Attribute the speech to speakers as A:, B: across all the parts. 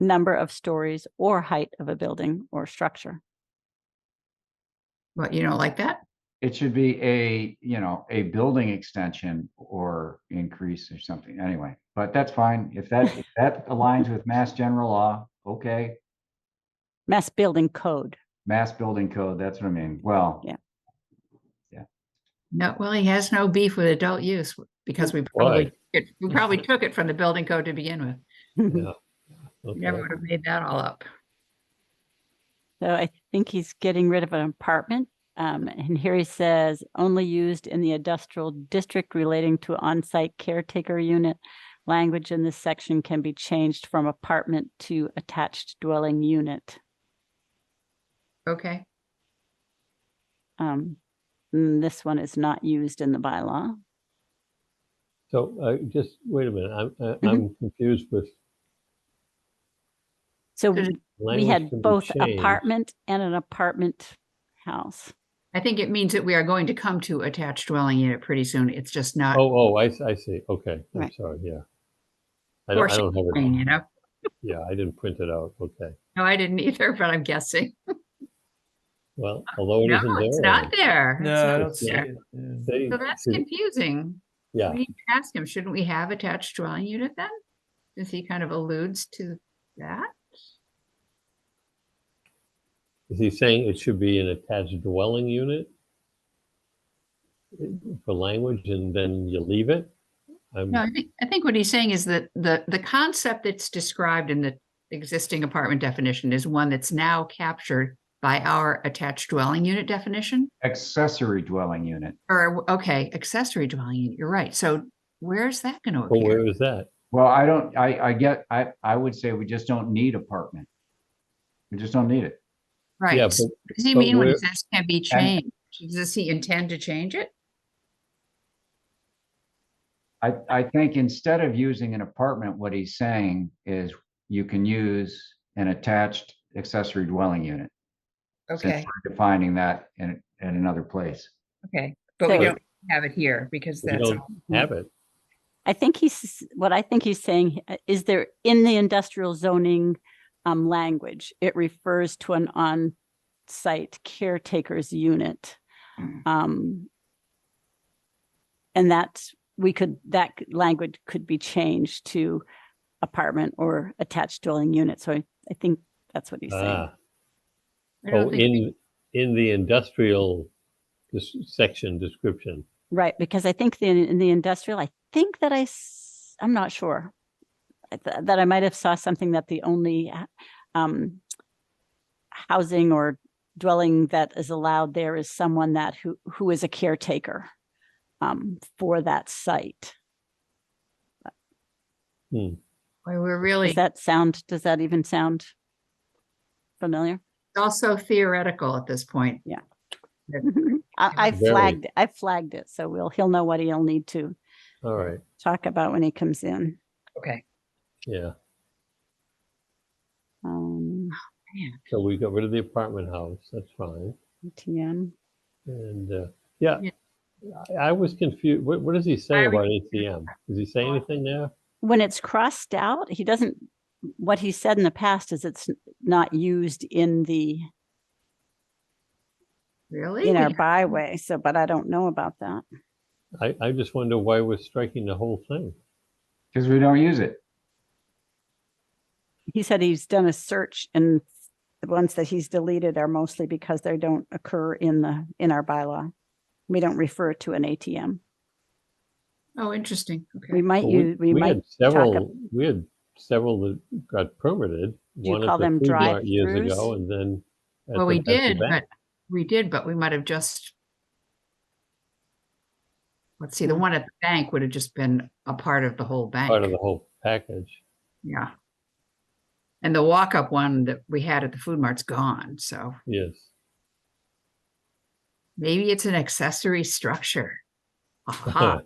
A: number of stories or height of a building or structure.
B: What, you don't like that?
C: It should be a, you know, a building extension or increase or something, anyway, but that's fine. If that, if that aligns with mass general law, okay.
A: Mass building code.
C: Mass building code, that's what I mean. Well,
A: Yeah.
B: No, well, he has no beef with adult use because we probably, it- we probably took it from the building code to begin with.
A: So
D: Yeah.
B: We Never
D: Okay.
B: would have made that all up.
A: I think he's getting rid of an apartment. Um, and here he says only used in the industrial district relating to on-site caretaker unit. Language in this section can be changed from apartment to attached dwelling unit.
B: Okay,
A: Um, and this one is not used in the bylaw.
D: So uh, just wait a minute, I'm,
B: Mm-hmm.
D: I- I'm confused with.
A: So
B: There's-
A: we- we
D: Hmm. language
A: had
D: can be
A: both
D: changed.
A: apartment and an apartment house.
B: I think it means that we are going to come to attached dwelling unit pretty soon. It's just not
D: Oh, oh, I, s- I see, okay, I'm
A: Right.
D: sorry, yeah. I don't, I
B: forcing,
D: don't have
B: thing,
D: it,
B: you know?
D: yeah, I didn't print it out, okay.
B: No, I didn't either, but I'm guessing.
D: Well, although it
B: Uh, No,
D: isn't
B: it's
D: there. uh,
B: not
D: already.
B: there. It's
E: No, I
B: not
E: don't see
B: there.
E: it. yeah.
D: They-
B: So that's
D: see,
B: confusing.
D: Yeah,
B: We need to ask him, shouldn't we have attached dwelling unit then? Since he kind of alludes to that.
D: is he saying it should be an attached dwelling unit? For language and then you leave it? I'm,
B: No, I think, I think what he's saying is that the, the concept that's described in the existing apartment definition is one that's now captured by our attached dwelling unit definition.
C: accessory dwelling unit.
B: Or, okay, accessory dwelling unit, you're right. So where's that going to
D: well,
B: appear?
D: where is that?
C: Well, I don't, I, I get, I, I would say we just don't need apartment. We just don't need it.
B: Right.
D: Yeah,
B: so
D: but-
B: What does he
D: but
B: mean when he
D: where-
B: says can be changed? Does he intend to change it?
C: I, I think instead of using an apartment, what he's saying is you can use an attached accessory dwelling unit. since
B: Okay,
C: we're Defining that in, in another place.
B: okay. But we
A: So-
B: don't have it here because
D: We
B: that's,
D: don't Have it,
A: I think he's, what I think he's saying uh, is there in the industrial zoning um, language, it refers to an on-site caretaker's unit.
B: Mm.
A: Um, And that, we could, that c- language could be changed to apartment or attached dwelling unit. So I, I think that's what he's saying.
D: ah,
B: I
D: oh,
B: don't think,
D: in, in the industrial dis- section description.
A: Right, because I think the, in the industrial, I think that I, s- I'm not sure. I th- That I might have saw something that the only uh, um, housing or dwelling that is allowed there is someone that who, who is a caretaker um, for that site.
B: Boy, we're really,
A: Does that sound, does that even sound familiar?
B: it's also theoretical at this point.
A: Mhm. I, I
D: Very.
A: flagged, I flagged it, so we'll, he'll know what he'll need to
D: All right,
A: talk about when he comes in.
B: Okay.
D: yeah.
A: Um,
D: So we got rid of the apartment house, that's fine.
A: ATM.
D: And, uh, yeah,
B: Yeah.
D: I I was confused. What, what does he say
B: I
D: about
B: was-
D: ATM? Does he say
B: Oh.
D: anything there?
A: when it's crossed out, he doesn't, what he said in the past is it's n- not used in the,
B: Really?
A: in our
B: We-
A: byway, so, but I don't know about that.
D: I, I just wonder why we're striking the whole thing.
C: Because we don't use it.
A: He said he's done a search and the ones that he's deleted are mostly because they don't occur in the, in our bylaw. We don't refer to an ATM.
B: Oh, interesting.
A: We
B: Okay.
A: might
D: Well, we-
A: use, we
D: we
A: might,
D: had Several, we had several that got permitted.
A: Do you
D: one at
A: call
D: the
A: them
D: food mart Years
A: drive-throughs?
D: ago and then. at
B: Well,
D: the-
B: we
D: at the
B: did,
D: bank.
B: but we did, but we might have just. Let's see, the one at the bank would have just been a part of the whole
D: Part of
B: bank.
D: the whole package.
B: Yeah. And the walk-up one that we had at the food mart's gone, so
D: Yes.
B: maybe it's an accessory structure. Aha,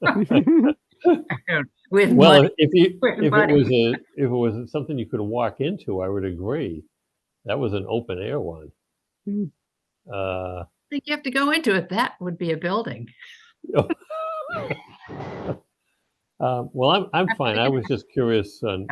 D: Well,
B: with money.
D: if if you,
B: Wait,
D: if it
B: buddy.
D: was a, if it was something you could walk into, I would agree. That was an open air one.
A: Hmm.
D: Uh,
B: I think you have to go into it. That would be a building.
D: uh, um, well, I'm, I'm fine. I was just curious on